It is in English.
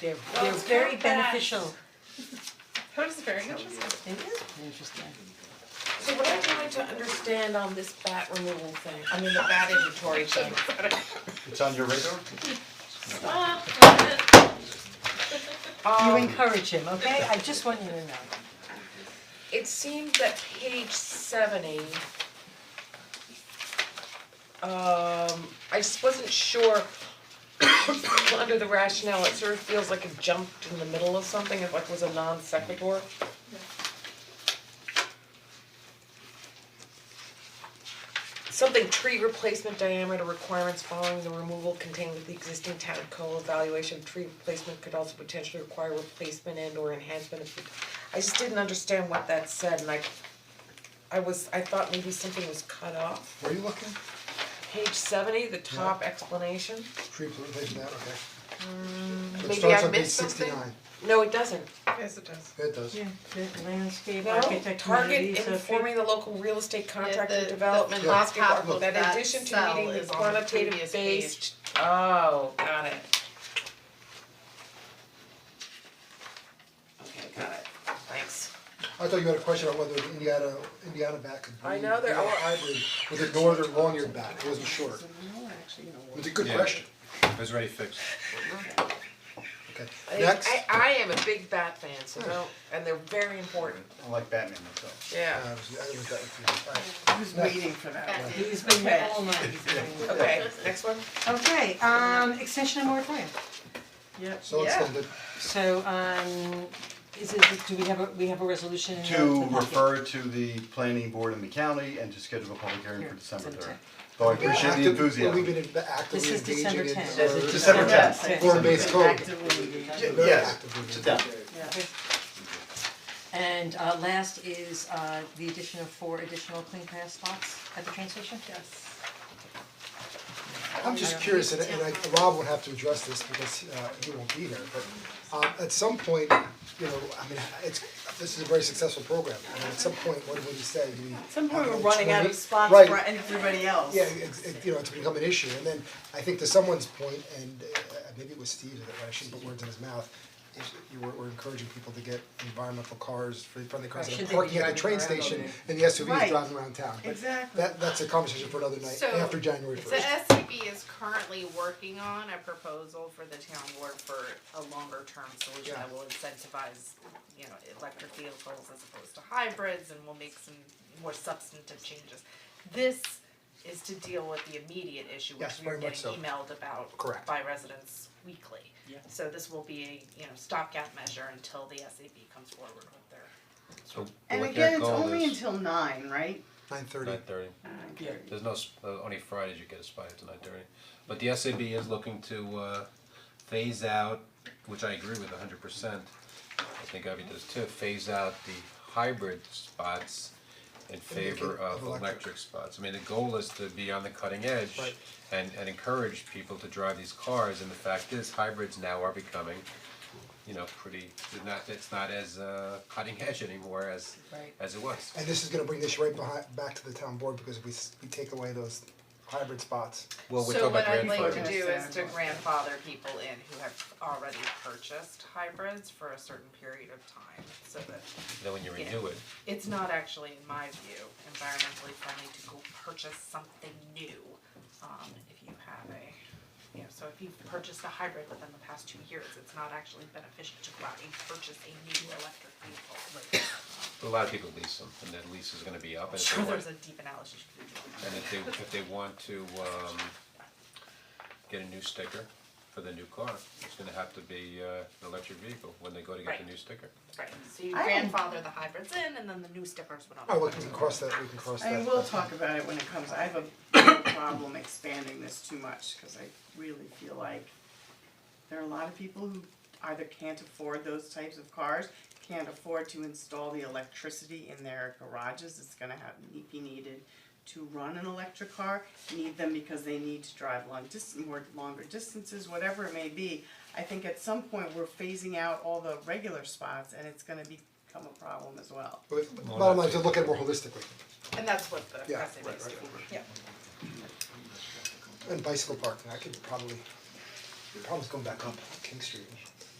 they're Well, they're it's very not that. beneficial. That is very interesting. It is interesting. So what I'm trying to understand on this bat removal thing, I mean the bat inventory thing. It's on your radar? You encourage him, okay? I just want you to know. It seems that page seventy. Um, I just wasn't sure, under the rationale, it sort of feels like it jumped in the middle of something, it like was a non sequitur. Something tree replacement diameter requirements following the removal contained with the existing town code evaluation of tree replacement could also potentially require replacement and or enhancement of. I just didn't understand what that said and I, I was, I thought maybe something was cut off. Were you looking? Page seventy, the top explanation, Tree plantation, that, okay. So it Mm, maybe starts I on page missed something. sixty-nine. No, it doesn't. Yes, it does. It does. the landscape No, architect target communities, informing the local real estate contractor the- the development top landscape half architect of that that in addition to cell meeting the is on the quantitative previous based. Oh, got it. Okay, got it, thanks. I thought you had a question about whether the Indiana, Indiana bat could breed, I you know they're all- hybrid with a northern long-eared bat, I wasn't sure. It's a good Yeah. question, It was already fixed. okay. I- Next, Uh, I I am a big bat fan, so don't, and they're very important, I like Batman myself. Uh, yeah, I was- I was- that was- all right. waiting for that one. He's been waiting all night. okay, next one? Okay, um, extension of moratorium. Yep. So let's end it. So, um, is it, do we have a, we have a resolution in the To the packet? refer to the planning board in the county and to schedule a public hearing Here, for December December third. 10th. Though I appreciate the Active- enthusiasm. We've been in- This actively is December engaging in. 10th. uh, December tenth. Form-based code. Y- Very Yes, actively sit down. engaging. And uh last is uh the addition of four additional clean pass spots at the train station? Yes. I'm just curious, and and I, Rob would have to address this because uh he won't be there, but uh at some point, you know, I mean, it's, this is a very successful program, I mean, at some point, what would you say, do we? At some point, we're running out of spots for everybody else. Yeah, it's it, you know, it's become an issue, and then I think to someone's point, and uh, maybe it was Steve's, I shouldn't put words in his mouth, is you were, we're encouraging people to get environmental cars, friendly cars, should and they be parking at the driving train around station, all day? and the SUVs Right. driving around town, but Exactly. that, that's a conversation for another night, So, after January first. The SCB is currently working on a proposal for the town board for a longer term solution that will incentivize, you know, electric vehicles as opposed to hybrids and will make some more substantive changes. This is to deal with the immediate issue, which Yes, we're very much getting so. emailed about Correct. by residents weekly. So this will be a, you know, stopgap measure until the SCB comes forward with their So And what again, their it's goal only is, until nine, right? Nine thirty. nine thirty, Uh, Yeah. there's no, s- uh, only Fridays you get a spy up to nine thirty. But the SAB is looking to uh phase out, which I agree with hundred percent, I think Ivy does too, phase out the hybrid spots in favor it of of electric. electric spots. I mean, the goal is to be on the cutting edge Right. and and encourage people to drive these cars, and the fact is hybrids now are becoming you know, pretty, they're not, it's not as uh cutting edge anymore as Right. as it was. And this is gonna bring this right behind, back to the town board, because if we, s- we take away those hybrid spots, Well, we're talking about So what I'd grandfathering. like to do is to grandfather people in who have already purchased hybrids for a certain period of time, so that Then when you Yeah. renew it, it's not actually, in my view, environmentally friendly to go purchase something new, um, if you have a, you know, so if you've purchased a hybrid within the past two years, it's not actually beneficial to go out and purchase a new electric vehicle, like, a lot of people lease them, and that lease is gonna be up, and if they sure, want, there's a deep analysis you could do on that. and if they, if they want to, um, get a new sticker for the new car, it's gonna have to be, uh, an electric vehicle when they go to get the Right. new sticker. Right, so you I don't- grandfather the hybrids in, and then the new stickers would all. oh, look, we can cross that, we can cross that. I mean, we'll talk about it when it comes, I have a problem expanding this too much, cause I really feel like there are a lot of people who either can't afford those types of cars, can't afford to install the electricity in their garages, it's gonna have, be needed to run an electric car, need them because they need to drive long dis- more longer distances, whatever it may be. I think at some point, we're phasing out all the regular spots and it's gonna become a problem as well. But Bottom line, is to look at it more holistically, And that's what the Yeah, SAB right, is right, doing. and bicycle parking, I could probably, the problem's going back up King Street.